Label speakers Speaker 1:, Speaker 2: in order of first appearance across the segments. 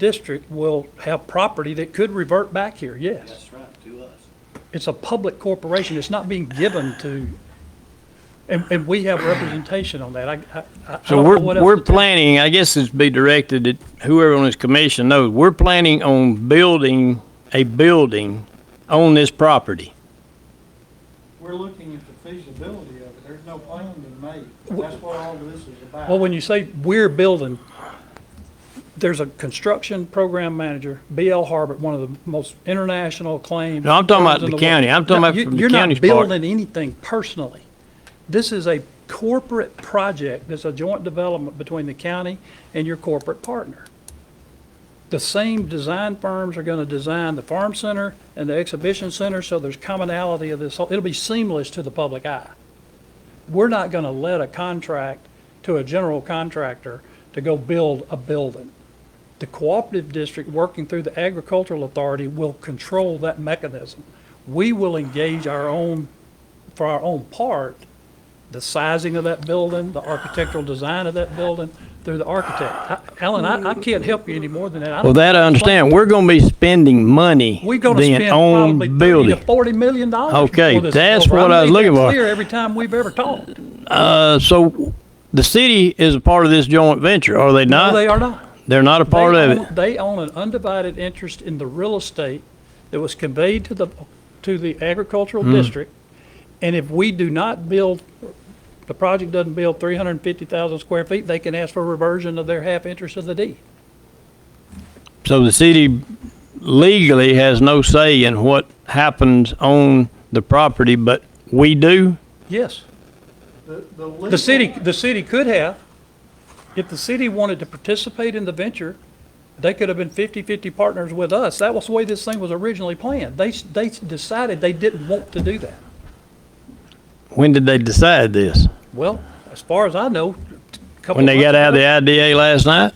Speaker 1: district will have property that could revert back here, yes.
Speaker 2: That's right, to us.
Speaker 1: It's a public corporation, it's not being given to, and, and we have representation on that. I, I- I, I
Speaker 3: So
Speaker 1: don't
Speaker 3: we're,
Speaker 1: know what else
Speaker 3: we're
Speaker 1: to tell you.
Speaker 3: planning, I guess it's be directed at whoever on this commission knows, we're planning on building a building on this property.
Speaker 4: We're looking at the feasibility of it. There's no plan been made. That's what all of this is about.
Speaker 1: Well, when you say we're building, there's a construction program manager, BL Harbert, one of the most international acclaimed.
Speaker 3: No, I'm talking about
Speaker 1: firms in
Speaker 3: the
Speaker 1: world.
Speaker 3: county. I'm talking
Speaker 1: No,
Speaker 3: about
Speaker 1: you-
Speaker 3: from the county's part.
Speaker 1: You're not building anything personally. This is a corporate project that's a joint development between the county and your corporate partner. The same design firms are going to design the farm center and the exhibition center, so there's commonality of this. whole- It'll be seamless to the public eye we're not going to let a contract to a general contractor to go build a building. The cooperative district, working through the agricultural authority, will control that mechanism. We will engage our own, for our own part, the sizing of that building, the architectural design of that building, through the architect. I- Alan, I, I can't help you any more than that. I don't-
Speaker 3: Well, that I understand. We're gonna be spending money
Speaker 1: We're going to
Speaker 3: then
Speaker 1: spend
Speaker 3: on
Speaker 1: probably thirty to
Speaker 3: building.
Speaker 1: forty million dollars.
Speaker 3: Okay,
Speaker 1: for this
Speaker 3: that's
Speaker 1: over.
Speaker 3: what I was
Speaker 1: made that
Speaker 3: looking for.
Speaker 1: Clear every time we've ever talked.
Speaker 3: Uh, so the city is a part of this joint venture, are they
Speaker 1: No,
Speaker 3: not?
Speaker 1: they are not.
Speaker 3: They're not a part
Speaker 1: They
Speaker 3: of it.
Speaker 1: own- They own an undivided interest in the real estate that was conveyed to the, to the agricultural
Speaker 3: Hmm.
Speaker 1: district. And if we do not build, the project doesn't build three hundred and fifty thousand square feet, they can ask for reversion of their half interest of the deed.
Speaker 3: So the city legally has no say in what happens on the property, but we do?
Speaker 1: Yes.
Speaker 4: The, the
Speaker 1: The city,
Speaker 4: legal-
Speaker 1: the city could have, if the city wanted to participate in the venture, they could have been 50-50 partners with us. That was the way this thing was originally planned. They, s- they s- decided they didn't want to do that.
Speaker 3: When did they decide this?
Speaker 1: Well, as far as I know, a couple
Speaker 3: When they
Speaker 1: months
Speaker 3: got out of
Speaker 1: ago-
Speaker 3: the IDA last night?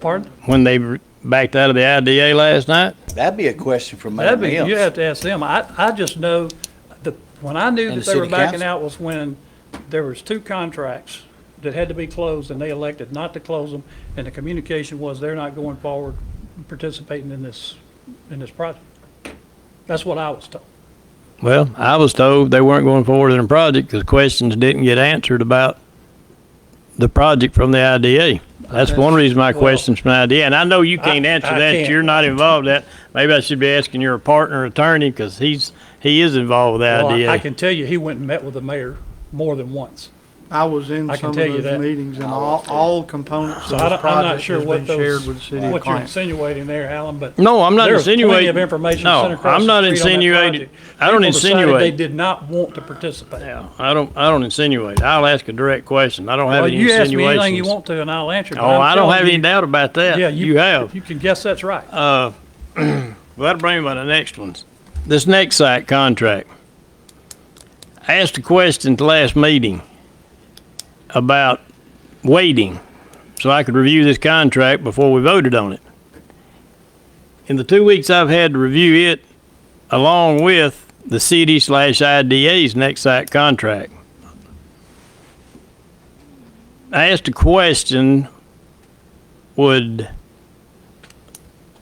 Speaker 1: Pardon?
Speaker 3: When they re- backed out of the IDA last night?
Speaker 2: That'd be a question for Mayor
Speaker 1: That'd be, you
Speaker 2: Mills.
Speaker 1: have to ask them. I, I just know that when I knew
Speaker 2: And
Speaker 1: that
Speaker 2: the
Speaker 1: they were
Speaker 2: city
Speaker 1: backing
Speaker 2: council.
Speaker 1: out was when there was two contracts that had to be closed and they elected not to close them. And the communication was they're not going forward participating in this, in this project. That's what I was told.
Speaker 3: Well, I was told they weren't going forward in the project because questions didn't get answered about the project from the IDA. That's one reason my
Speaker 1: Well-
Speaker 3: questions from the IDA, and I know you can't
Speaker 1: I-
Speaker 3: answer
Speaker 1: I
Speaker 3: that,
Speaker 1: can't.
Speaker 3: you're not involved in that. Maybe I should be asking your partner attorney because he's, he is involved with
Speaker 1: Well,
Speaker 3: the
Speaker 1: I- I
Speaker 3: IDA.
Speaker 1: can tell you, he went and met with the mayor more than once.
Speaker 4: I was in
Speaker 1: I can
Speaker 4: some of
Speaker 1: tell you
Speaker 4: those
Speaker 1: that.
Speaker 4: meetings and all, all components
Speaker 1: So
Speaker 4: of
Speaker 1: I
Speaker 4: the
Speaker 1: don't, I'm not
Speaker 4: project
Speaker 1: sure
Speaker 4: has
Speaker 1: what
Speaker 4: been
Speaker 1: those,
Speaker 4: shared with the city of
Speaker 1: what you're
Speaker 4: Columbus.
Speaker 1: insinuating there, Alan, but.
Speaker 3: No, I'm not
Speaker 1: There was plenty
Speaker 3: insinuating.
Speaker 1: of information
Speaker 3: No,
Speaker 1: sent across
Speaker 3: I'm
Speaker 1: the
Speaker 3: not
Speaker 1: street on that
Speaker 3: insinuating.
Speaker 1: project.
Speaker 3: I don't
Speaker 1: People decided
Speaker 3: insinuate.
Speaker 1: They did not want to participate.
Speaker 3: Yeah, I don't, I don't insinuate. I'll ask a direct question. I don't have
Speaker 1: Well,
Speaker 3: any
Speaker 1: you ask me anything you
Speaker 3: insinuations.
Speaker 1: want to and I'll answer. but
Speaker 3: Oh,
Speaker 1: I'm
Speaker 3: I don't
Speaker 1: telling
Speaker 3: have
Speaker 1: you-
Speaker 3: any doubt about
Speaker 1: Yeah,
Speaker 3: that. You have.
Speaker 1: You can guess that's right.
Speaker 3: Uh, well, that'll bring me to the next ones. This next site contract. I asked a question at the last meeting about waiting so I could review this contract before we voted on it. In the two weeks I've had to review it, along with the city slash IDA's next site contract, I asked a question, would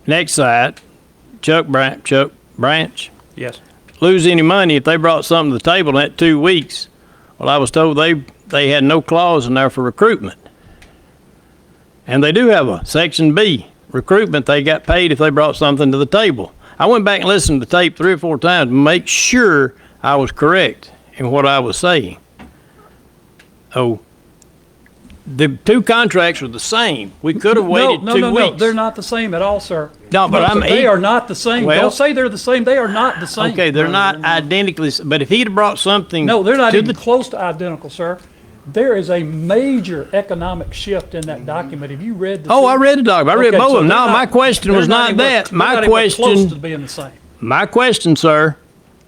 Speaker 3: next site, Chuck Branch, Chuck Branch,
Speaker 1: Yes.
Speaker 3: lose any money if they brought something to the table in that two weeks. Well, I was told they, they had no clause in there for recruitment. And they do have a section B, recruitment, they got paid if they brought something to the table. I went back and listened to the tape three or four times to make sure I was correct in what I was saying. Oh, the two contracts were the same. We could have waited
Speaker 1: no,
Speaker 3: two
Speaker 1: no, no,
Speaker 3: weeks.
Speaker 1: They're not the same at all, sir.
Speaker 3: No, but I'm-
Speaker 1: They are not the same.
Speaker 3: Well-
Speaker 1: Don't say they're the same. They are not the same.
Speaker 3: Okay, they're not identically, s- but if he'd have brought something.
Speaker 1: No, they're not
Speaker 3: to
Speaker 1: even
Speaker 3: the-
Speaker 1: close to identical, sir. There is a major economic shift in that document. Have you read the?
Speaker 3: Oh, I
Speaker 1: city-
Speaker 3: read the dog. I read
Speaker 1: Okay,
Speaker 3: both
Speaker 1: so
Speaker 3: of them.
Speaker 1: they're
Speaker 3: No,
Speaker 1: not-
Speaker 3: my question
Speaker 1: they're
Speaker 3: was not
Speaker 1: even-
Speaker 3: that.
Speaker 1: they're
Speaker 3: My
Speaker 1: not even Close
Speaker 3: question-
Speaker 1: to being the same.
Speaker 3: My question, sir,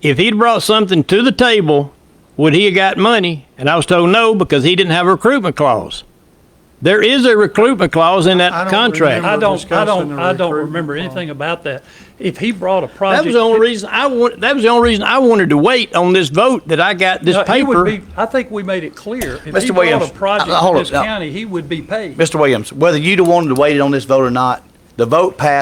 Speaker 3: if he'd brought something to the table, would he have got money? And I was told no, because he didn't have a recruitment clause. There is a recruitment clause in
Speaker 4: I
Speaker 3: that
Speaker 4: don't
Speaker 3: contract.
Speaker 4: remember.
Speaker 1: I don't, I
Speaker 4: discussing
Speaker 1: don't,
Speaker 4: the
Speaker 1: I don't
Speaker 4: recruitment
Speaker 1: remember
Speaker 4: plan.
Speaker 1: anything about that. If he brought a
Speaker 3: That
Speaker 1: project.
Speaker 3: was the only reason I want, that was the only reason I wanted to wait on this vote that I got this
Speaker 1: No, he would
Speaker 3: paper.
Speaker 1: be- I think we made it clear. If
Speaker 2: Mr.
Speaker 1: he brought
Speaker 2: Williams,
Speaker 1: a project
Speaker 2: uh, hold
Speaker 1: to
Speaker 2: up,
Speaker 1: this
Speaker 2: no.
Speaker 1: county, he would be paid.
Speaker 2: Mr. Williams, whether you'd have wanted to wait on this vote or not, The vote passed